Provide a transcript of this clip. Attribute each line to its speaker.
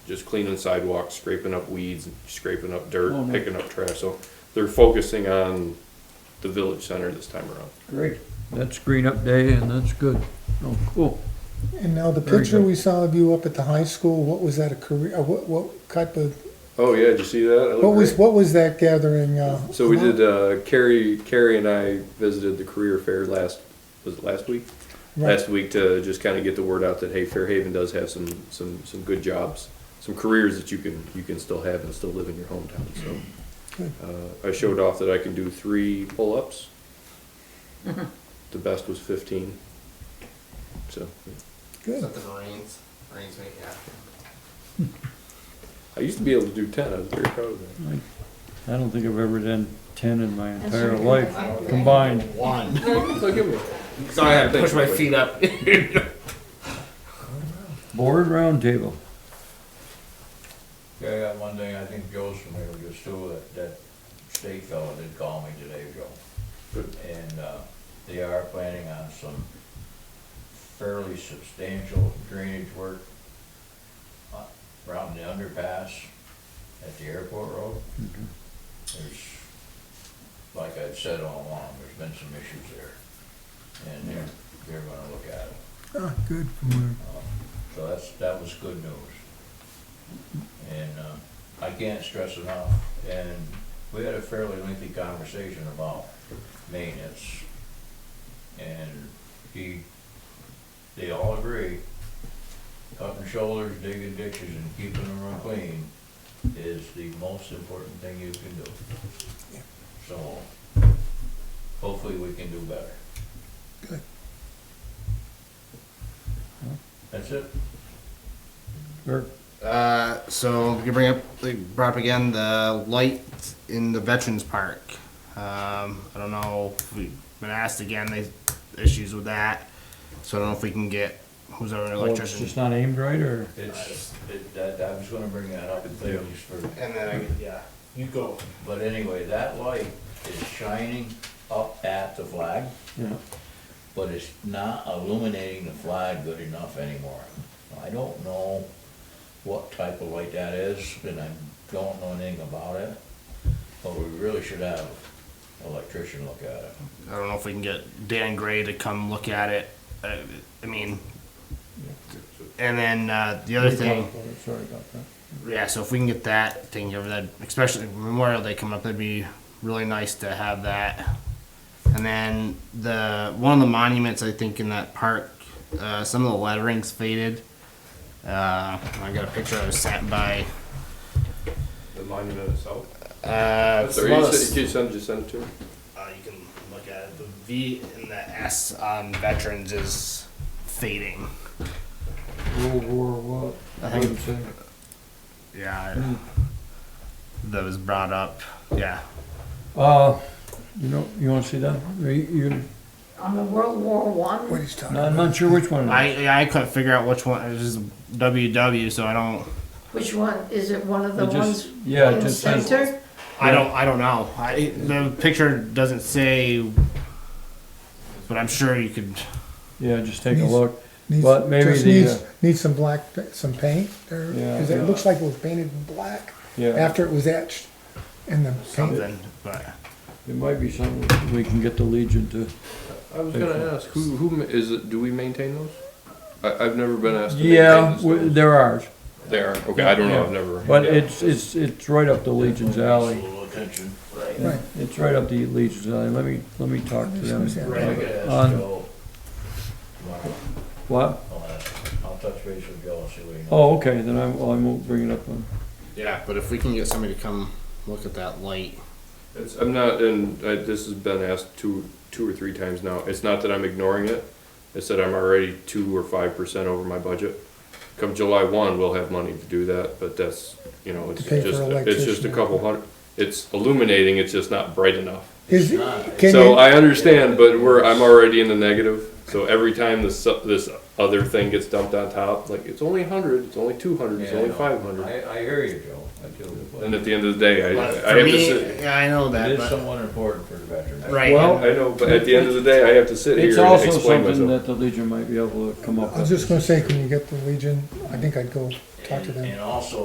Speaker 1: just cleaning sidewalks, scraping up weeds, scraping up
Speaker 2: Oh,
Speaker 1: dirt,
Speaker 2: nice.
Speaker 1: picking up trash, so they're focusing on the village center this time around.
Speaker 2: Great. That's green up day and that's good. Oh, cool.
Speaker 3: And now the
Speaker 2: Very
Speaker 3: picture
Speaker 2: good.
Speaker 3: we saw of you up at the high school, what was that a career, uh, what, what type of,
Speaker 1: Oh, yeah, did you see that? That looked
Speaker 3: what was,
Speaker 1: great.
Speaker 3: what was that gathering? uh,
Speaker 1: So we
Speaker 3: about?
Speaker 1: did, uh, Carrie, Carrie and I visited the career fair last, was it last week?
Speaker 3: Right.
Speaker 1: Last week to just kind of get the word out that, hey, Fairhaven does have some, some, some good jobs, some careers that you can, you can still have and still live in your hometown, so.
Speaker 3: Good.
Speaker 1: Uh, I showed off that I can do three pull-ups. The best was fifteen. So,
Speaker 4: Is
Speaker 3: Good.
Speaker 4: that the Marines? Marines make it happen.
Speaker 1: I used to be able to do ten, I was very proud of that.
Speaker 2: I don't think I've ever done ten in my
Speaker 5: That's
Speaker 2: entire
Speaker 5: right.
Speaker 2: life combined.
Speaker 4: One.
Speaker 1: So give me-
Speaker 4: Sorry, I had to push my feet up.
Speaker 2: Board roundtable.
Speaker 6: Yeah, I got one thing, I think Joe's familiar with this too, that, that state fellow did call me today, Joe.
Speaker 1: Good.
Speaker 6: And, uh, they are planning on some fairly substantial drainage work uh, around the underpass at the airport road. There's, like I've said all along, there's been some issues there, and they're, they're gonna look at it.
Speaker 3: Ah, good. Mm.
Speaker 6: Uh, So that's, that was good news. And, uh, I can't stress enough, and we had a fairly lengthy conversation about maintenance. And he, they all agree, cutting shoulders, digging ditches, and keeping the room clean is the most important thing you can do. So, hopefully we can do better.
Speaker 3: Good.
Speaker 6: That's it.
Speaker 2: Or-
Speaker 4: Uh, so you bring up, they brought up again the light in the Veterans Park. Um, I don't know. If we've been asked again. They issues with that. So I don't know if we can get who's our
Speaker 2: Well, it's
Speaker 4: electrician.
Speaker 2: just not aimed right or?
Speaker 6: It's, it, that, I was gonna bring that up, and thank you for,
Speaker 4: and then I, yeah, you go.
Speaker 6: but anyway, that light is shining up at the flag,
Speaker 2: Yeah.
Speaker 6: but it's not illuminating the flag good enough anymore. I don't know what type of light that is, and I don't know anything about it, but we really should have an electrician look at it.
Speaker 4: I don't know if we can get Dan Gray to come look at it. Uh, I mean, and then uh, the other thing.
Speaker 2: Sorry about that.
Speaker 4: Yeah, so if we can get that thing over that, especially Memorial Day coming up, that'd be really nice to have that. And then the one of the monuments I think in that park, uh, some of the lettering's faded. Uh, I got a picture I was sat by.
Speaker 1: The monument itself.
Speaker 4: Uh, it's
Speaker 1: Sorry,
Speaker 4: one
Speaker 1: you
Speaker 4: of the-
Speaker 1: said, you send, just send it to me?
Speaker 4: uh, you can look at it. The V and the S on veterans is fading.
Speaker 2: World War what?
Speaker 4: I think-
Speaker 2: What did it say?
Speaker 4: Yeah, I- that was brought up. Yeah,
Speaker 2: Uh, you know, you wanna see that? You- You,
Speaker 5: On the World War
Speaker 3: What
Speaker 5: One,
Speaker 3: he's talking
Speaker 2: I'm
Speaker 3: about.
Speaker 2: not sure which
Speaker 1: Hmm.
Speaker 2: one. it is.
Speaker 4: I I couldn't figure out which one. It was just WW, so I don't.
Speaker 5: which one, is it one of the
Speaker 2: It just-
Speaker 5: ones
Speaker 2: Yeah,
Speaker 5: in
Speaker 2: it
Speaker 5: the
Speaker 2: just says,
Speaker 5: center?
Speaker 4: I don't. I don't know. I, the picture doesn't say, but I'm sure you could.
Speaker 2: yeah, just take a
Speaker 3: Needs-
Speaker 2: look.
Speaker 3: Needs-
Speaker 2: But maybe
Speaker 3: just
Speaker 2: the,
Speaker 3: needs-
Speaker 2: uh,
Speaker 3: Needs some black, some paint there,
Speaker 2: Yeah.
Speaker 3: cause it looks like it was painted in black
Speaker 2: Yeah,
Speaker 3: after it was etched in the paint.
Speaker 4: Something, but
Speaker 2: it might be something we can get the Legion to.
Speaker 1: I was gonna ask, who, who, ma- is it, do we maintain those? I, I've never been asked to
Speaker 2: Yeah,
Speaker 1: maintain
Speaker 2: we-
Speaker 1: those.
Speaker 2: they're ours,
Speaker 1: They are, okay, I don't know, I've
Speaker 2: Yeah.
Speaker 1: never.
Speaker 2: but
Speaker 1: yeah.
Speaker 2: it's, it's, it's right up the Legion's alley.
Speaker 6: A little attention.
Speaker 2: Yeah,
Speaker 3: Right.
Speaker 2: It's right up the Legion's alley, let me, let me talk to them.
Speaker 3: Right.
Speaker 6: Right, I could ask
Speaker 2: On-
Speaker 6: Joe tomorrow.
Speaker 2: What?
Speaker 6: I'll ask, I'll touch base with Joe and see what he knows.
Speaker 2: Oh, okay, then I, well, I won't bring it up on,
Speaker 4: yeah, but if we can get somebody to come look at that light,
Speaker 1: It's, I'm not, and I, this has been asked two, two or three times now. It's not that I'm ignoring it. It's that I'm already two or five percent over my budget. Come July one, we'll have money to do that, but that's, you know, it's
Speaker 3: To pay for
Speaker 1: just, it's just a
Speaker 3: electrician.
Speaker 1: couple hundred. It's illuminating, it's just not bright enough.
Speaker 3: Is,
Speaker 6: not.
Speaker 3: can
Speaker 1: So
Speaker 2: uh,
Speaker 3: you,
Speaker 1: I understand, but we're, I'm already in the negative. So every time this, su- this other thing gets dumped on top, like, it's only a hundred, it's only two hundred, it's
Speaker 6: Yeah, I
Speaker 1: only
Speaker 6: know.
Speaker 1: five hundred.
Speaker 6: I, I hear you, Joe, I do. but
Speaker 1: And at the end of the day, I,
Speaker 4: but
Speaker 1: I
Speaker 4: for
Speaker 1: have to
Speaker 4: me,
Speaker 1: sit.
Speaker 4: yeah, I know
Speaker 6: It
Speaker 4: that,
Speaker 6: is
Speaker 4: but
Speaker 6: somewhat important for the veterans.
Speaker 4: right.
Speaker 2: well,
Speaker 1: I know, but at the end of the day, I have to sit
Speaker 2: it's
Speaker 1: here and
Speaker 2: also
Speaker 1: explain
Speaker 2: something
Speaker 1: myself.
Speaker 2: that the Legion might be able to come up with.
Speaker 3: I was just gonna say, can you get the Legion, I think I'd go talk to
Speaker 6: And-
Speaker 3: them.
Speaker 6: And also,